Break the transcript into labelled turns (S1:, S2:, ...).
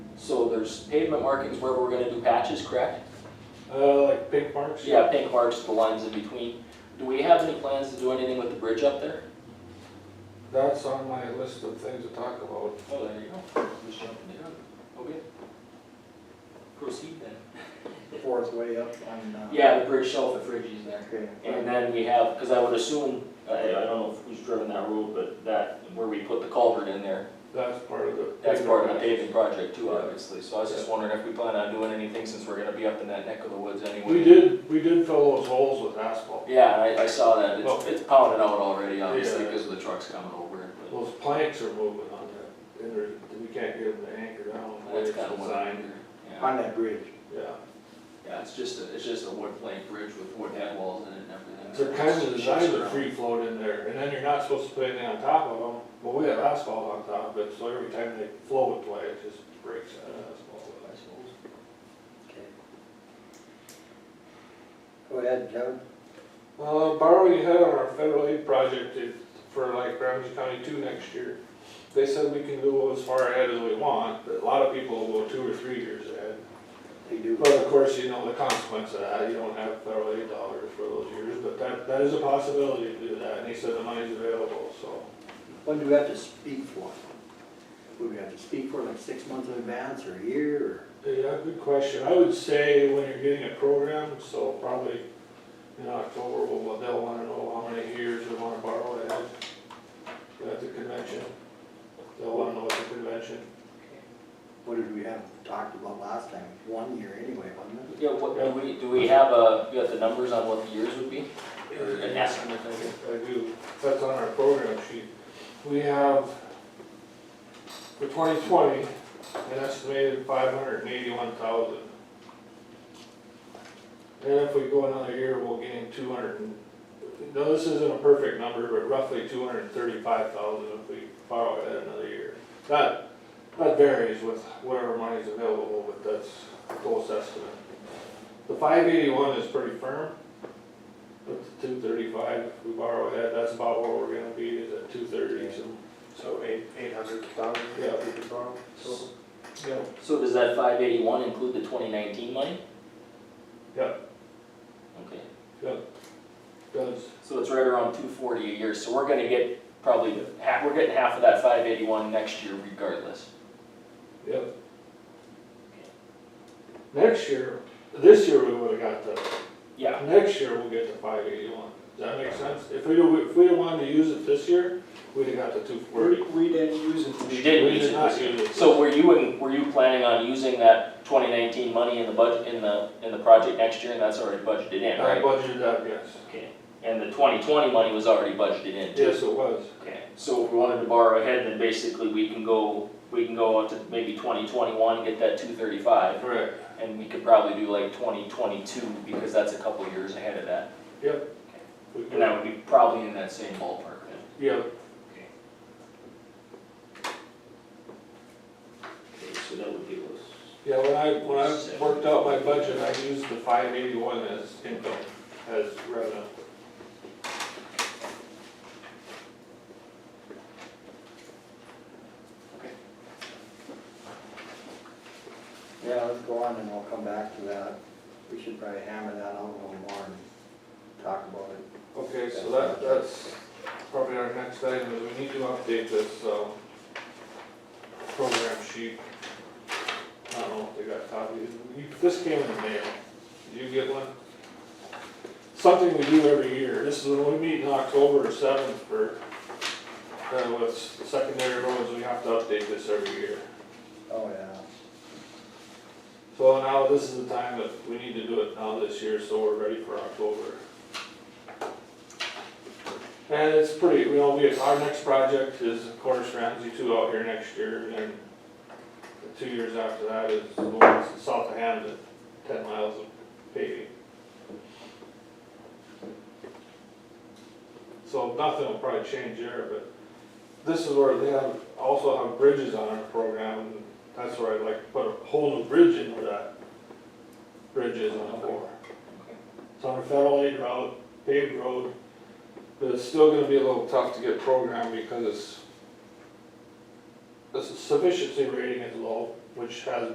S1: so there's pavement markings where we're gonna do patches, correct?
S2: Uh, like pink marks?
S1: Yeah, pink marks, the lines in between. Do we have any plans to do anything with the bridge up there?
S2: That's on my list of things to talk about.
S1: Oh, there you go. Just jumping the gun. Okay. Proceed then.
S3: Before it's way up on, uh.
S1: Yeah, the bridge shelf at Fridgie's there.
S3: Okay.
S1: And then we have, because I would assume, I, I don't know who's driven that road, but that, where we put the culvert in there,
S2: That's part of the.
S1: that's part of the paving project too, obviously. So I was just wondering if we plan on doing anything since we're gonna be up in that neck of the woods anyway.
S2: We did, we did fill those holes with asphalt.
S1: Yeah, I, I saw that. It's,
S2: Well-
S1: it's pounded out already, obviously,
S2: Yeah.
S1: because of the trucks coming over. but
S2: Those planks are moving on that, and they're, we can't get them to anchor down. the way
S1: That's
S2: it's
S1: kind of what I'm
S2: designed.
S1: Yeah,
S3: On that bridge.
S2: Yeah,
S1: Yeah, it's just a, it's just a wood plank bridge with wood head walls in it and everything.
S2: they're kind of
S1: It's
S2: designed to
S1: around.
S2: free float in there, and then you're not supposed to put anything on top of them, but we have asphalt on top of it, so every time they flow it away, it just breaks that asphalt, I suppose.
S3: Okay. Go ahead, Kevin.
S2: Uh, borrowing ahead on our federal aid project if- for like Ramsey County two next year. They said we can go as far ahead as we want, but a lot of people will go two or three years ahead.
S3: They do.
S2: But of course, you know, the consequence of that, you don't have federal aid dollars for those years, but that, that is a possibility to do that, and he said the money's available, so.
S3: When do we have to speak for? Would we have to speak for like six months in advance or a year
S2: Yeah, good question. I would say when you're getting a program, so probably in October, we'll, they'll wanna know how many years they wanna borrow it at, at the convention. They'll wanna know at the convention.
S3: or? What did we have talked about last time? One year anyway, wasn't it?
S1: Yeah, what, do we, do we have a, you got the numbers on what the years would be? Or an
S2: Uh,
S1: estimate, I guess?
S2: I do, that's on our program sheet. We have, for twenty twenty, an estimated five hundred and eighty-one thousand. And if we go another year, we'll gain two hundred and, no, this isn't a perfect number, but roughly two hundred and thirty-five thousand if we borrow it another year. That, that varies with whatever money's available, but that's a close estimate. The five eighty-one is pretty firm. But the two thirty-five, if we borrow that, that's about where we're gonna be, is at two thirty, so.
S4: So eight, eight hundred thousand?
S2: Yeah.
S4: We could borrow, so.
S2: Yeah.
S1: So does that five eighty-one include the twenty nineteen money?
S2: Yep.
S1: Okay,
S2: Does,
S1: so it's right around two forty a year, so we're gonna get probably, half, we're getting half of that five eighty-one next year regardless.
S2: yep. Next year, this year we would've got the,
S1: Yeah,
S2: next year we'll get the five eighty-one, does that make sense? If we, if we wanted to use it this year, we'd have got the two forty.
S4: We didn't use it.
S1: you did
S2: We
S1: use it this
S2: did not
S1: year.
S2: use it.
S1: So were you, in- were you planning on using that twenty nineteen money in the budget, in the, in the project next year, and that's already budgeted in,
S2: I
S1: right?
S2: budgeted that, yes,
S1: Okay, and the twenty twenty money was already budgeted in too?
S2: yes, it was,
S1: Okay, so if we wanted to borrow ahead, then basically we can go, we can go up to maybe twenty twenty-one, get that two thirty-five,
S2: correct,
S1: and we could probably do like twenty twenty-two, because that's a couple years ahead of that.
S2: yep. We
S1: And that would be probably in that same ballpark then.
S2: Yep,
S1: Okay, so that would give us.
S2: yeah, when I, when I worked out my budget, I used the five eighty-one as income, as revenue.
S3: Yeah, let's go on and we'll come back to that. We should probably hammer that out a little more and talk about it.
S2: Okay, so that, that's probably our next item, is we need to update this, um, program sheet. I don't know if they got copies, you, this came in the mail, did you get one? Something we do every year, this is when we meet in October seventh for, uh, with secondary roads, we have to update this every year.
S3: Oh, yeah.
S2: So now this is the time that we need to do it now this year, so we're ready for October. And it's pretty, we know, we, our next project is of course Ramsey two out here next year and then the two years after that is the one south of Hampton, ten miles of paving. So nothing will probably change there, but this is where they have, also have bridges on our program, and that's where I'd like to put a whole new bridge in where that bridge is on the four. It's on a federal aid route, paved road, but it's still gonna be a little tough to get programmed because it's, the sufficiency rating is low, which has